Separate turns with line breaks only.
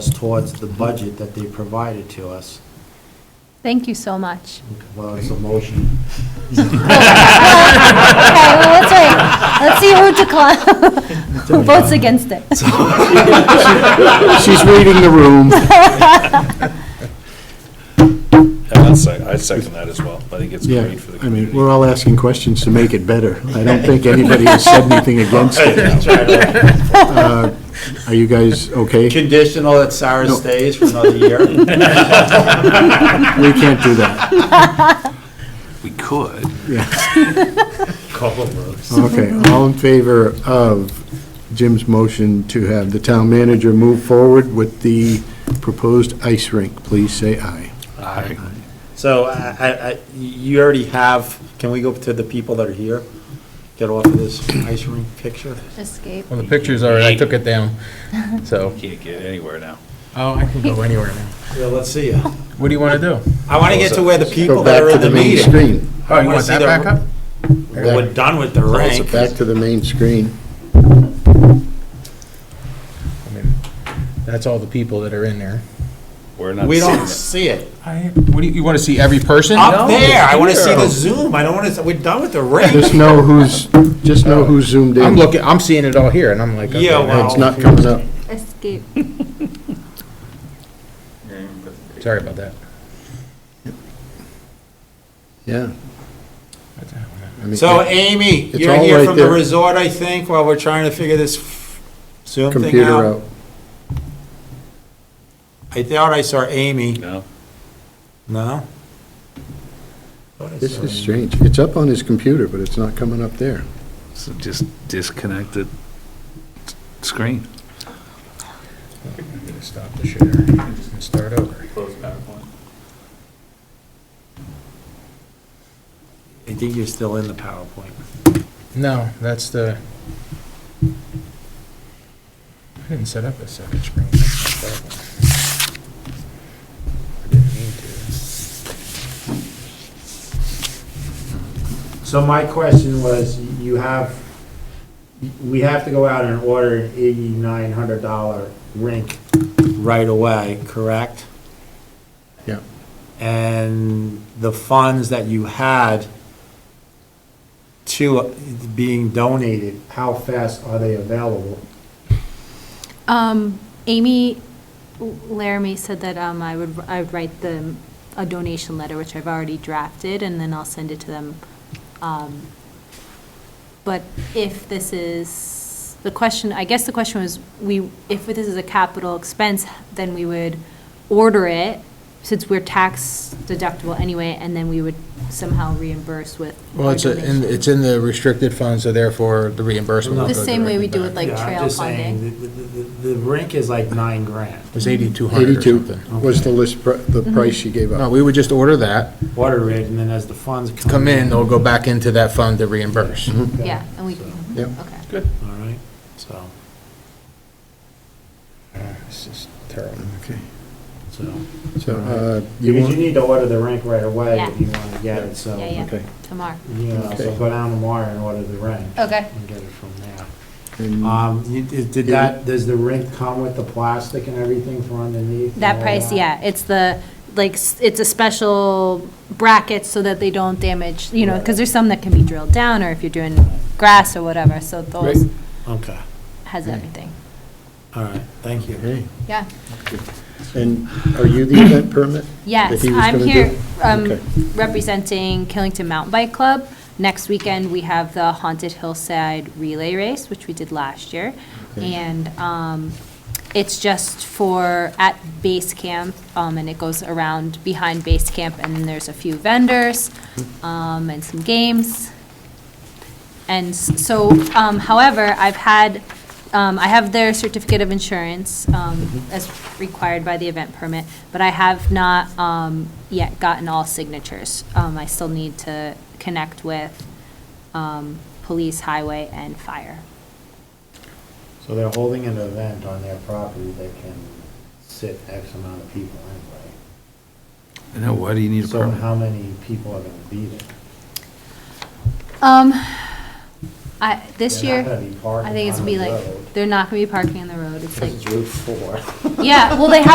towards the budget that they provided to us.
Thank you so much.
Well, it's a motion.
Okay, well, let's wait. Let's see who declines, who votes against it.
She's reading the room.
And I'd sec- I'd second that as well. I think it's
Yeah,
great for the
I mean,
community.
we're all asking questions to make it better. I don't think anybody has said anything against it. Uh, Are you guys okay?
Conditional that Sarah
No.
stays for another year.
We can't do that.
We could.
Okay, all in favor of Jim's motion to have the town manager move forward with the proposed ice rink, please say aye.
So I- I, I, you already have, can we go to the people that are here? Get off of this ice rink picture?
Escape.
Well, the pictures are, I took it down, so,
Can't get anywhere now.
oh, I can go anywhere now.
Yeah, let's see ya.
What do you want to do?
I want to get to where the people
Go
that
back
are
to
in the
the main
meeting.
screen.
Oh,
wanna
you want
see
that
the-
back up?
We're done with the rank.
Back to the main screen.
I mean, That's all the people that are in there.
We're not
We
seeing
don't
it.
see it.
I, what do you, you want to see every person?
Up there, I want to see
here.
the zoom. I don't want to, we're done with the rank.
Just know who's, just know who's zoomed in.
I'm looking, I'm seeing it all here, and I'm like, okay,
Yeah,
now
It's not coming up.
Escape.
it's- sorry about that.
Yeah. I mean,
So Amy,
It's
you're
all
here
right
from the
there.
resort, I think, while we're trying to figure this Zoom thing
Computer
out.
out.
I thought I saw Amy.
No?
No?
This is strange. It's up on his computer, but it's not coming up there.
So just disconnect the screen.
I'm gonna stop the share and start over.
Close PowerPoint.
I think you're still in the PowerPoint.
No, that's the, I didn't set up a second screen. That's my problem. I didn't mean to.
So my question was, you have, we have to go out and order an eighty-nine hundred dollar rink right away, correct?
Yeah.
And the funds that you had to being donated, how fast are they available?
Um, Amy Laramie said that, um, I would, I would write them a donation letter, which I've already drafted, and then I'll send it to them. Um, But if this is, the question, I guess the question was, we, if this is a capital expense, then we would order it, since we're tax deductible anyway, and then we would somehow reimburse with.
Well,
our
it's, a- in-
donation.
it's in the restricted fund, so therefore the reimbursement. will
The
go
same way we
directly
do
back.
with, like,
Yeah, I'm
trail
just saying, the- the- The the rink is like nine grand.
It was 8,200 or
82
something. Oh.
was the list, pri- the price she gave
No,
up.
we would just order that,
Order it, and then as the funds come.
come in, they'll go back into that fund to reimburse.
Mm-hmm.
Okay.
Yeah, and we,
So,
Yep.
okay.
All right, so,
This is terrible.
Okay.
so.
So, uh,
Because
you
you
want,
need to order the rink right away
Yeah.
if you want to get it, so,
Yeah,
you
yeah.
okay.
Tomorrow.
know, so
Okay.
go down tomorrow and order the rink
Okay.
and get it from there.
And
Um, you- did did that, does the rink come with the plastic and everything for underneath? and
That
all
price, yeah, it's the, like, s- it's a special bracket so that they don't damage, you know, because there's some that can be drilled down, or if you're doing grass or whatever, so those
Okay,
has everything.
all right, thank you.
okay.
Yeah,
And are you the event permit?
yes,
That he was
I'm
gonna do?
here um,
Okay.
representing Killington Mountain Bike Club. Next weekend, we have the Haunted Hillside Relay Race, which we did last year.
Okay.
And um, it's just for, at base camp, um, and it goes around behind base camp, and then there's a few vendors
Mm-hmm.
um, and some games. And s- so, um, however, I've had, um, I have their certificate of insurance um, as required by the event permit, but I have not um, yet gotten all signatures. Um, I still need to connect with um, police, highway, and fire.
So they're holding an event on their property that can sit X amount of people in,
No, why do you need
right?
a
So
permit?
how many people are going to be there?
Um, I, this
They're not
year,
gonna be
Um, I think
parking
it's gonna be
on the
like,
road.
they're not gonna be parking on the road. road, it's like,
Route four.
yeah, well, they have